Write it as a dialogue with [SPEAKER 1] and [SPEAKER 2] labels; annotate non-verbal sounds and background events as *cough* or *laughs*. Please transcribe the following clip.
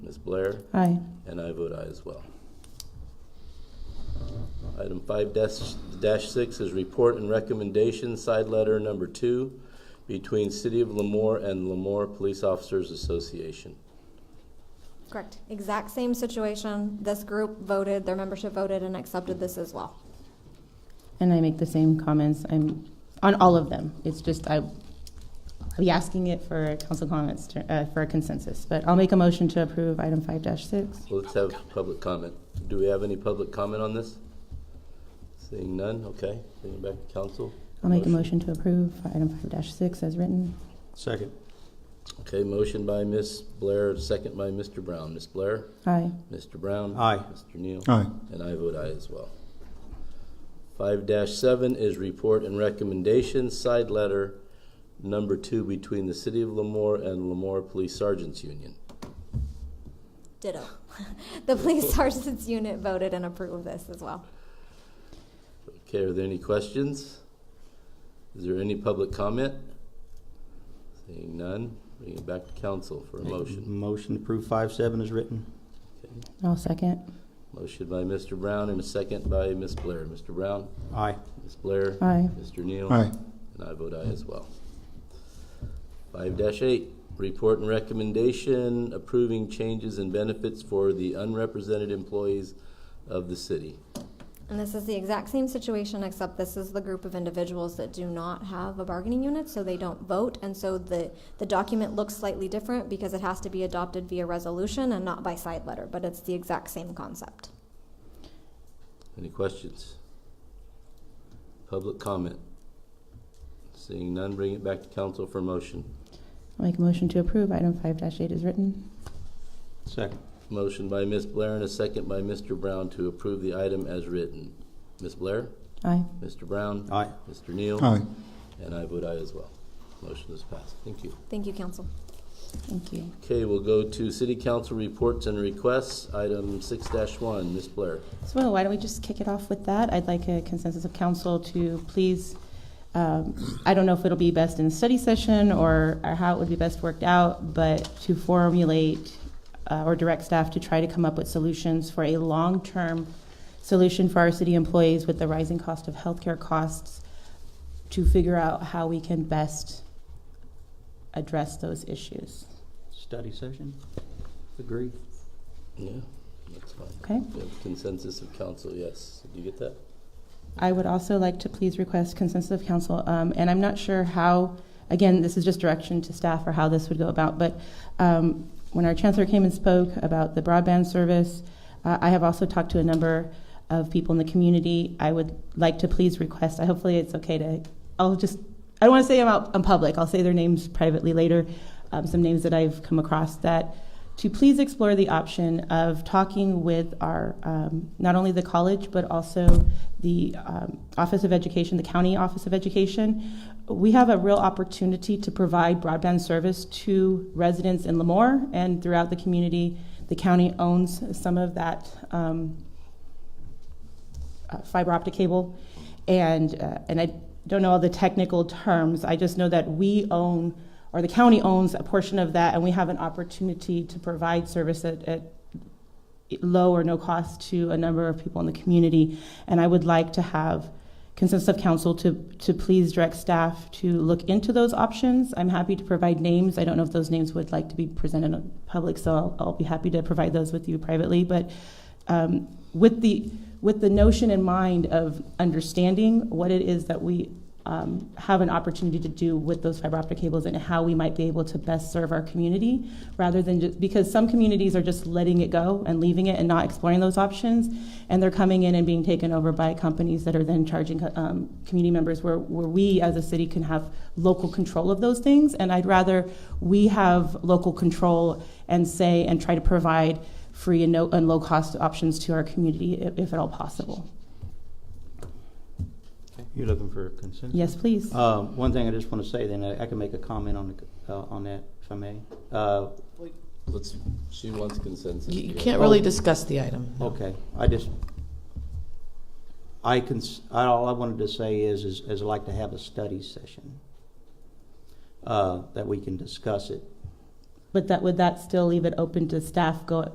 [SPEAKER 1] Blair,
[SPEAKER 2] Aye.
[SPEAKER 1] and I vote aye as well. Item five dash, dash six is report and recommendation, side letter number two, between City of Lemoore and Lemoore Police Officers Association.
[SPEAKER 3] Correct. Exact same situation. This group voted, their membership voted and accepted this as well.
[SPEAKER 2] And I make the same comments, I'm, on all of them. It's just, I, I'll be asking it for council comments, to- uh, for a consensus. But I'll make a motion to approve item five dash six.
[SPEAKER 1] Well, Let's have public comment. Do we have any public comment on this? Seeing none, okay, bring it back to council.
[SPEAKER 2] I'll make a motion to approve item five dash six as written.
[SPEAKER 4] Second.
[SPEAKER 1] Okay, motion by Ms. Blair, second by Mr. Brown. Ms. Blair?
[SPEAKER 2] Aye.
[SPEAKER 1] Mr. Brown?
[SPEAKER 4] Aye.
[SPEAKER 1] Mr. Neal?
[SPEAKER 5] Aye.
[SPEAKER 1] And I vote aye as well. Five dash seven is report and recommendation, side letter number two between the City of Lemoore and Lemoore Police Sergeants Union.
[SPEAKER 3] Ditto. *laughs* The police *laughs* sergeant's unit voted and approved this as well.
[SPEAKER 1] Okay, are there any questions? Is there any public comment? Seeing none, bring it back to council for a motion.
[SPEAKER 4] Motion to approve five seven is written.
[SPEAKER 2] I'll second.
[SPEAKER 1] Motion by Mr. Brown and a second by Ms. Blair. Mr. Brown?
[SPEAKER 4] Aye.
[SPEAKER 1] Ms. Blair?
[SPEAKER 2] Aye.
[SPEAKER 1] Mr. Neal?
[SPEAKER 5] Aye.
[SPEAKER 1] And I vote aye as well. Five dash eight, report and recommendation approving changes in benefits for the unrepresented employees of the city.
[SPEAKER 3] And this is the exact same situation, except this is the group of individuals that do not have a bargaining unit, so they don't vote. And so the, the document looks slightly different because it has to be adopted via resolution and not by side letter, but it's the exact same concept.
[SPEAKER 1] Any questions? Public comment? Seeing none, bring it back to council for motion.
[SPEAKER 2] I'll make a motion to approve item five dash eight as written.
[SPEAKER 4] Second.
[SPEAKER 1] Motion by Ms. Blair and a second by Mr. Brown to approve the item as written. Ms. Blair?
[SPEAKER 2] Aye.
[SPEAKER 1] Mr. Brown?
[SPEAKER 4] Aye.
[SPEAKER 1] Mr. Neal?
[SPEAKER 5] Aye.
[SPEAKER 1] And I vote aye as well. Motion is passed. Thank you.
[SPEAKER 3] Thank you, council.
[SPEAKER 2] Thank you.
[SPEAKER 1] Okay, we'll go to city council reports and requests, item six one, Ms. Blair.
[SPEAKER 2] So why don't we just kick it off with that? I'd like a consensus of council to please, um, I don't know if it'll be best in study session or or how it would be best worked out, but to formulate uh, or direct staff to try to come up with solutions for a long-term solution for our city employees with the rising cost of healthcare costs to figure out how we can best address those issues.
[SPEAKER 4] Study session. Agree.
[SPEAKER 1] Yeah, that's fine.
[SPEAKER 2] Okay?
[SPEAKER 1] We have Consensus of council, yes. Did you get that?
[SPEAKER 2] I would also like to please request consensus of council, um, and I'm not sure how, again, this is just direction to staff or how this would go about, but um, when our chancellor came and spoke about the broadband service, uh, I have also talked to a number of people in the community. I would like to please request, I hopefully it's okay to, I'll just, I don't want to say them out in public, I'll say their names privately later, um, some names that I've come across that to please explore the option of talking with our, um, not only the college, but also the um, Office of Education, the County Office of Education. We have a real opportunity to provide broadband service to residents in Lemoore and throughout the community. The county owns some of that um, uh, fiber optic cable. And, uh, and I don't know all the technical terms, I just know that we own, or the county owns a portion of that, and we have an opportunity to provide service at, at low or no cost to a number of people in the community. And I would like to have consensus of council to, to please direct staff to look into those options. I'm happy to provide names. I don't know if those names would like to be presented in public, so I'll, I'll be happy to provide those with you privately. But um, with the with the notion in mind of understanding what it is that we um, have an opportunity to do with those fiber optic cables and how we might be able to best serve our community rather than just because some communities are just letting it go and leaving it and not exploring those options and they're coming in and being taken over by companies that are then charging um, community members where, where we as a city can have local control of those things and i'd rather we have local control and say and try to provide free and no and low cost options to our community if, if at all possible
[SPEAKER 4] You're looking for consensus?
[SPEAKER 2] yes please
[SPEAKER 4] Uh, one thing I just want to say, then, I I can make a comment on, the- uh, on that, if I may. Uh,
[SPEAKER 1] Let's, she wants consensus.
[SPEAKER 6] You you
[SPEAKER 1] Yeah.
[SPEAKER 6] can't really discuss the item. no.
[SPEAKER 4] Okay, I just, I can, all I wanted to say is, is is I'd like to have a study session uh, that we can discuss it.
[SPEAKER 2] but that would that still leave it open to staff go